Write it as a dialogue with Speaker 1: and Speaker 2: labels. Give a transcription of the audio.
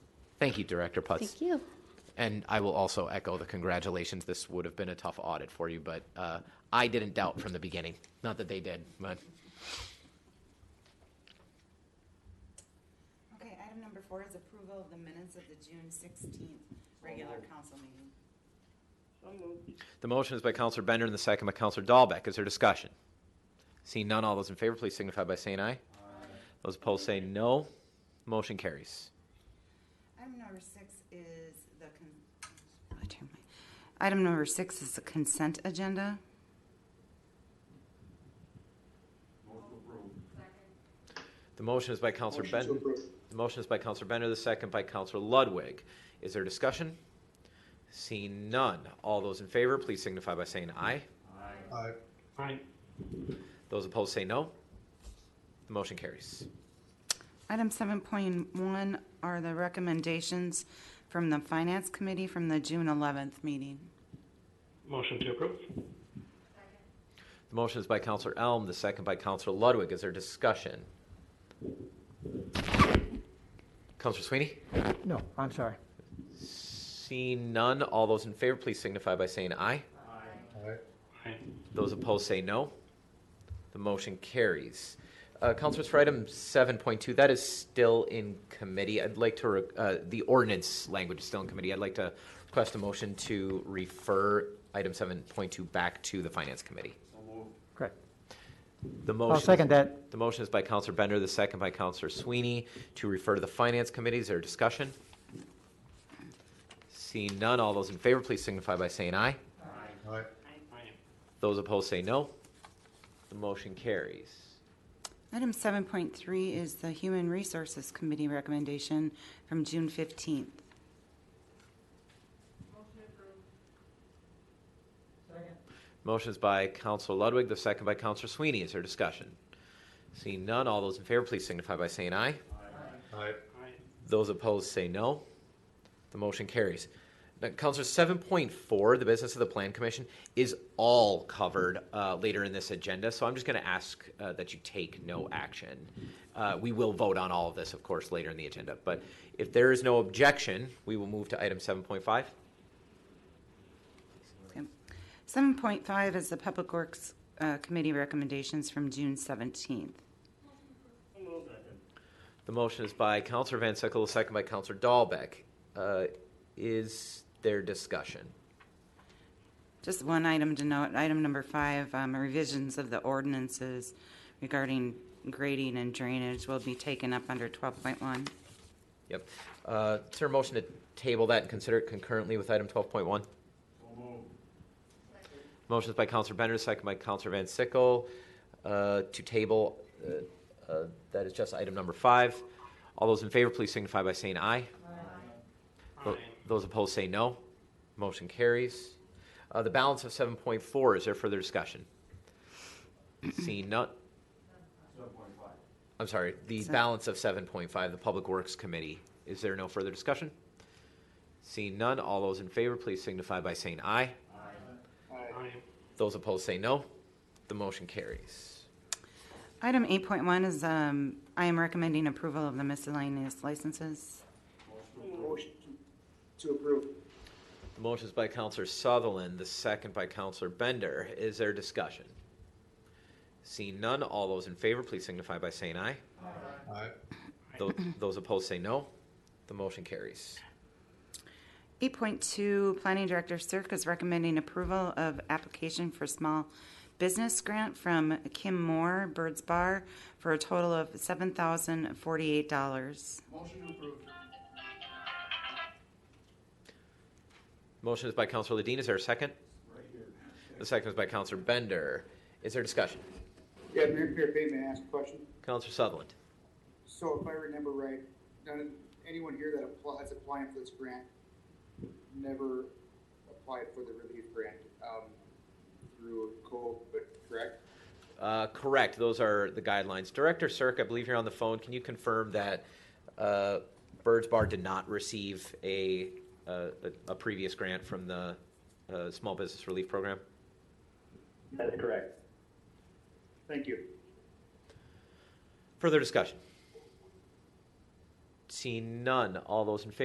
Speaker 1: Thank you, Director Putz.
Speaker 2: Thank you.
Speaker 1: And I will also echo the congratulations. This would have been a tough audit for you, but uh, I didn't doubt from the beginning. Not that they did, but
Speaker 3: Okay, item number four is approval of the minutes of the June sixteenth regular council meeting.
Speaker 1: the motion is by Counselor Bender and the second by Counselor Dahlbeck. Is there discussion? Seeing none, all those in favor, please signify by saying aye. Those opposed say no. Motion carries.
Speaker 3: Item number six is the con- oh, turn my- Item number six is the consent agenda.
Speaker 1: The motion is by Counselor
Speaker 4: Motion to
Speaker 1: Bender.
Speaker 4: approve.
Speaker 1: The motion is by Counselor Bender, the second by Counselor Ludwig. Is there discussion? Seeing none, all those in favor, please signify by saying aye.
Speaker 4: Aye.
Speaker 5: Aye.
Speaker 1: Those opposed say no. The motion carries.
Speaker 3: Item seven point one are the recommendations from the finance committee from the June eleventh meeting.
Speaker 5: Motion to approve?
Speaker 1: The motion is by Counselor Elm, the second by Counselor Ludwig. Is there discussion? Counselor Sweeney?
Speaker 6: No, I'm sorry.
Speaker 1: Seeing none, all those in favor, please signify by saying aye.
Speaker 4: Aye.
Speaker 5: Aye.
Speaker 1: Those opposed say no. The motion carries. Uh, Councilors, for item 7.2, that is still in committee. I'd like to, re- uh, the ordinance language is still in committee. I'd like to request a motion to refer item 7.2 back to the Finance Committee.
Speaker 6: Correct.
Speaker 1: The motion.
Speaker 6: I'll second that.
Speaker 1: The motion is by Counselor Bender, the second by Counselor Sweeney, to refer to the Finance Committee. Is there a discussion? Seeing none, all those in favor, please signify by saying aye.
Speaker 4: Aye.
Speaker 5: Aye.
Speaker 1: Those opposed say no. The motion carries.
Speaker 3: Item seven point three is the human resources committee recommendation from June fifteenth.
Speaker 1: Motion is by Counselor Ludwig, the second by Counselor Sweeney. Is there discussion? Seeing none, all those in favor, please signify by saying aye.
Speaker 4: Aye.
Speaker 5: Aye.
Speaker 1: Those opposed say no. The motion carries. Now, Counselor, seven point four, the business of the Plan Commission, is all covered uh, later in this agenda. So I'm just going to ask uh, that you take no action. Uh, we will vote on all of this, of course, later in the agenda. But if there is no objection, we will move to item seven point five.
Speaker 3: Seven point five is the public works uh, committee recommendations from June seventeenth.
Speaker 1: The motion is by Counselor Van Sickle, second by Counselor Dahlbeck. Uh, is there discussion?
Speaker 3: Just one item to note, item number five, um, revisions of the ordinances regarding grading and drainage will be taken up under twelve point one.
Speaker 1: Yep. Uh, is there a motion to table that and consider it concurrently with item twelve point one? Motion is by Counselor Bender, second by Counselor Van Sickle, uh, to table, uh, uh, that is just item number five. All those in favor, please signify by saying aye. Tho-
Speaker 5: Aye.
Speaker 1: Those opposed say no. Motion carries. Uh, The balance of 7.4, is there further discussion? Seeing none. 7.5. I'm sorry, the
Speaker 3: Se-
Speaker 1: balance of 7.5, the Public Works Committee. Is there no further discussion? Seeing none, all those in favor, please signify by saying aye.
Speaker 5: Aye.
Speaker 1: Those opposed say no. The motion carries.
Speaker 3: Item eight point one is, um, I am recommending approval of the miscellaneous licenses.
Speaker 4: Motion to approve.
Speaker 1: The motion is by Counselor Sutherland, the second by Counselor Bender. Is there discussion? Seeing none, all those in favor, please signify by saying aye.
Speaker 4: Aye.
Speaker 1: Tho- Those opposed say no. The motion carries.
Speaker 3: Eight point two, Planning Director Cirque is recommending approval of application for small business grant from Kim Moore, Bird's Bar, for a total of seven thousand forty-eight dollars.
Speaker 1: Motion is by Counselor Ledeen. Is there a second? The second is by Counselor Bender. Is there discussion?
Speaker 7: Yeah, Mayor Mayor Bateman asked a question.
Speaker 1: Counselor Sutherland.
Speaker 7: So if I remember right, none of, anyone here that applies, applying for this grant never applied for the relief grant, um, through COLD, but correct?
Speaker 1: Uh, correct. Those are the guidelines. Director Cirque, I believe you're on the phone. Can you confirm that uh, Birds Bar did not receive a, uh, a, a previous grant from the uh, Small Business Relief Program?
Speaker 7: That's correct. Thank you.
Speaker 1: Further discussion? Seeing none, all those in favor?